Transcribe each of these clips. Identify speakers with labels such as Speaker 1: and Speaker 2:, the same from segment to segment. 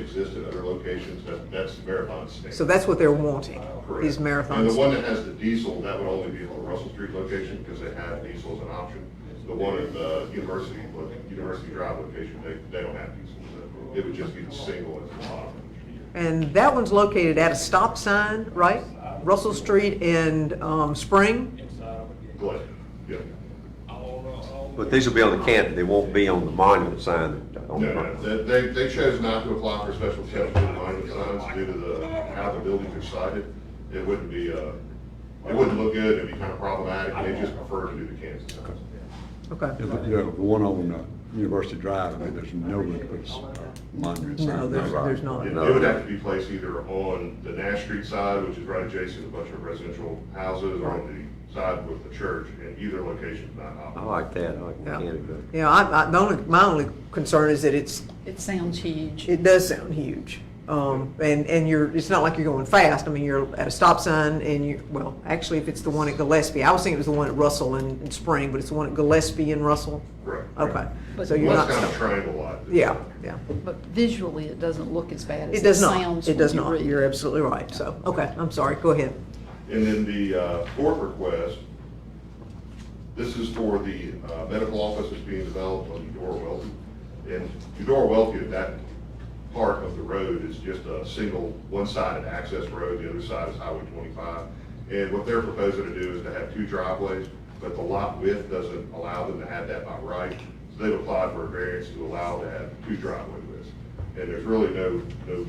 Speaker 1: exist at other locations, that, that's Marathon's standard.
Speaker 2: So that's what they're wanting,
Speaker 1: Correct.
Speaker 2: these
Speaker 1: And the one
Speaker 2: marathons.
Speaker 1: that has the diesel, that would only be on the Russell Street location because they have diesel as an option. The one at the University, University Drive location, they, they don't have diesel. so It would just be the single as an option.
Speaker 2: And that one's located at a stop sign, right? Russell Street and um, Spring?
Speaker 1: Glenn, yeah.
Speaker 3: But these will be on the canton, they won't be on the monument sign. on the
Speaker 1: No, no,
Speaker 3: front.
Speaker 1: they- they, they chose not to apply for special exception for monument signs due to the, how the buildings are sited. It wouldn't be, uh, it wouldn't look good, it'd be kind of problematic, and they just prefer to do the Kansas signs.
Speaker 2: Okay.
Speaker 4: Yeah, The yeah, the one on uh, University Drive, I mean, there's no room to put a s- a monument sign.
Speaker 2: No, there's, there's not.
Speaker 1: It it would have to be placed either on the Nash Street side, which is right adjacent to a bunch of residential houses, or on the side with the church, and either location is not
Speaker 3: I
Speaker 1: optimal.
Speaker 3: like that, I like the
Speaker 2: Yeah.
Speaker 3: canton better.
Speaker 2: Yeah, I, I, the only, my only concern is that it's,
Speaker 5: It sounds huge.
Speaker 2: it does sound huge. Um, and, and you're, it's not like you're going fast. I mean, you're at a stop sign and you, well, actually, if it's the one at Gillespie, I was thinking it was the one at Russell and, and Spring, but it's the one at Gillespie and Russell?
Speaker 1: Correct.
Speaker 2: Oh. Okay,
Speaker 5: But-
Speaker 2: so you're
Speaker 1: Well,
Speaker 2: not,
Speaker 1: that's kind of a
Speaker 2: stopping.
Speaker 1: triangle lot.
Speaker 2: yeah, yeah.
Speaker 5: But visually, it doesn't look as bad
Speaker 2: It
Speaker 5: as it
Speaker 2: does not,
Speaker 5: sounds
Speaker 2: it
Speaker 5: when
Speaker 2: does
Speaker 5: you
Speaker 2: not.
Speaker 5: read.
Speaker 2: You're absolutely right, so, okay, I'm sorry, go ahead.
Speaker 1: And then the uh, fourth request, this is for the uh, medical office that's being developed on Eudora Welty. And Eudora Welty, that part of the road is just a single, one-sided access road, the other side is Highway 25. And what they're proposing to do is to have two driveways, but the lot width doesn't allow them to have that by right. So they've applied for a variance to allow to have two driveway widths. And there's really no, no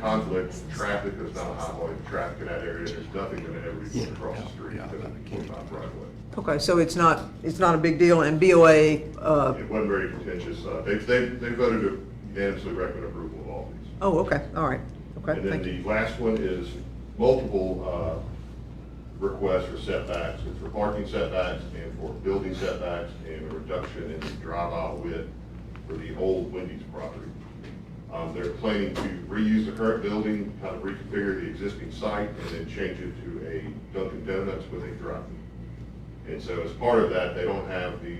Speaker 1: conflict, traffic, there's not a high volume of traffic in that area, there's nothing going to ever be going across the street because of the 25 right of way.
Speaker 2: Okay, so it's not, it's not a big deal, and BOA, uh,
Speaker 1: It wasn't very contentious, Uh, they, they, they voted to unanimously recommend approval of all these.
Speaker 2: oh, okay, all right, okay,
Speaker 1: And then
Speaker 2: thank you.
Speaker 1: the last one is multiple uh, requests for setbacks, it's for parking setbacks and for building setbacks and a reduction in the drive aisle width for the old Wendy's property. Um, They're planning to reuse the current building, kind of reconfigure the existing site and then change it to a Dunkin' Donuts with a drive-through. And so as part of that, they don't have the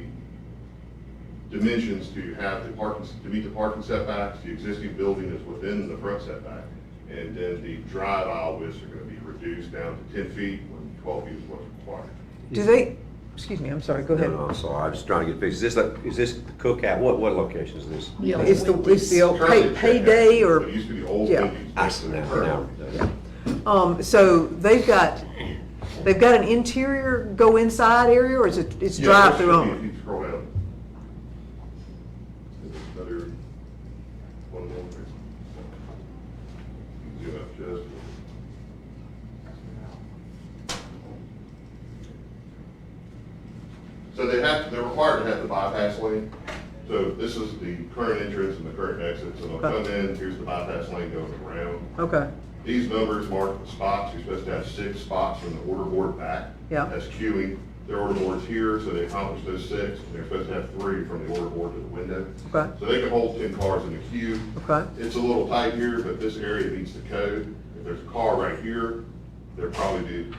Speaker 1: dimensions to have the parking, to meet the parking setbacks, the existing building is within the front setback. And then the drive aisle widths are gonna be reduced down to ten feet when twelve feet is what's required.
Speaker 2: Do they, excuse me, I'm sorry, go ahead.
Speaker 3: No, no, I'm sorry, I'm just trying to get fixed. Is this, like- is this the cookout? What, what location is this?
Speaker 5: Yeah.
Speaker 2: It's the, it's the old
Speaker 1: Currently,
Speaker 2: pay-
Speaker 1: it's
Speaker 2: payday
Speaker 1: checkout,
Speaker 2: or?
Speaker 1: but It used to be old
Speaker 2: Yeah.
Speaker 1: buildings.
Speaker 3: I see now, now.
Speaker 2: Um, so they've got, they've got an interior go inside area or is it, it's
Speaker 1: Yeah, there
Speaker 2: drive-through
Speaker 1: should be,
Speaker 2: only?
Speaker 1: If you scroll down. There's Another, one more. Zoom up just. So they have, they're required to have the bypass lane. So this is the current entrance and the current exit. So they'll
Speaker 2: Okay.
Speaker 1: come in, here's the bypass lane going around.
Speaker 2: Okay,
Speaker 1: These numbers mark the spots, you're supposed to have six spots from the order board back.
Speaker 2: Yeah.
Speaker 1: That's queuing, their order board's here, so they accomplish those six, and they're supposed to have three from the order board to the window.
Speaker 2: Okay.
Speaker 1: So they can hold ten cars in the queue.
Speaker 2: okay,
Speaker 1: It's a little tight here, but this area meets the code. If there's a car right here, there'd probably be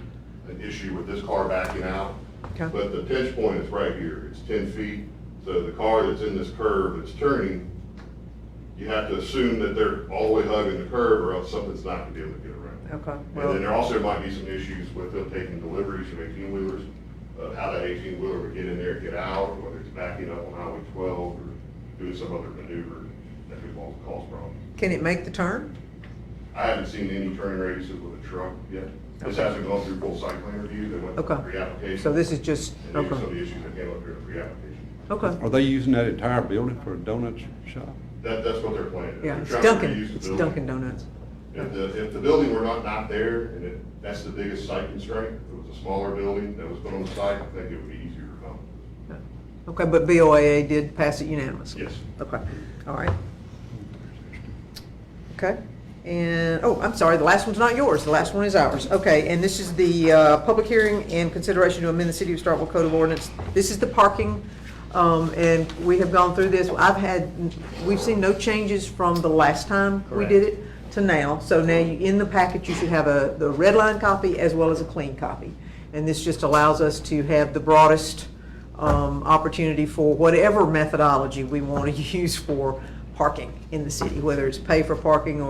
Speaker 1: an issue with this car backing out.
Speaker 2: Okay.
Speaker 1: But the pinch point is right here, it's ten feet, so the car that's in this curve that's turning, you have to assume that they're all the way hugging the curve, or else something's not gonna be able to get around.
Speaker 2: okay.
Speaker 1: And then
Speaker 2: Well,
Speaker 1: there also might be some issues with them taking deliveries from eighteen wheelers, of how that eighteen wheeler would get in there, get out, or whether it's backing up on Highway twelve, or doing some other maneuver that could cause cause problems.
Speaker 2: can it make the turn?
Speaker 1: I haven't seen any turning radiuses with a truck yet. This
Speaker 2: Okay.
Speaker 1: hasn't gone through full site plan review, they went through
Speaker 2: Okay.
Speaker 1: pre-application.
Speaker 2: So this is just,
Speaker 1: And these are some of
Speaker 2: okay,
Speaker 1: the issues that came up during the pre-application.
Speaker 2: okay.
Speaker 4: Are they using that entire building for a donut shop?
Speaker 1: That, that's what they're planning.
Speaker 2: Yeah,
Speaker 1: They're
Speaker 2: it's
Speaker 1: trying to
Speaker 2: Dunkin',
Speaker 1: reuse the
Speaker 2: it's
Speaker 1: building.
Speaker 2: Dunkin' Donuts.
Speaker 1: If the, if the building were not, not there, and it, that's the biggest site constraint, if it was a smaller building that was put on the site, I think it would be easier to come.
Speaker 2: Okay, but BOAA did pass it unanimously?
Speaker 1: Yes.
Speaker 2: Okay, all right. Okay, and, oh, I'm sorry, the last one's not yours, the last one is ours. Okay, and this is the uh, public hearing and consideration to amend the City of Starkville Code of Ordinance. This is the parking, um, and we have gone through this. I've had, we've seen no changes from the last time we did it to now. So now, you- in the packet, you should have a, the red line copy as well as a clean copy. And this just allows us to have the broadest um, opportunity for whatever methodology we want to use for parking in the city, whether it's pay for parking or.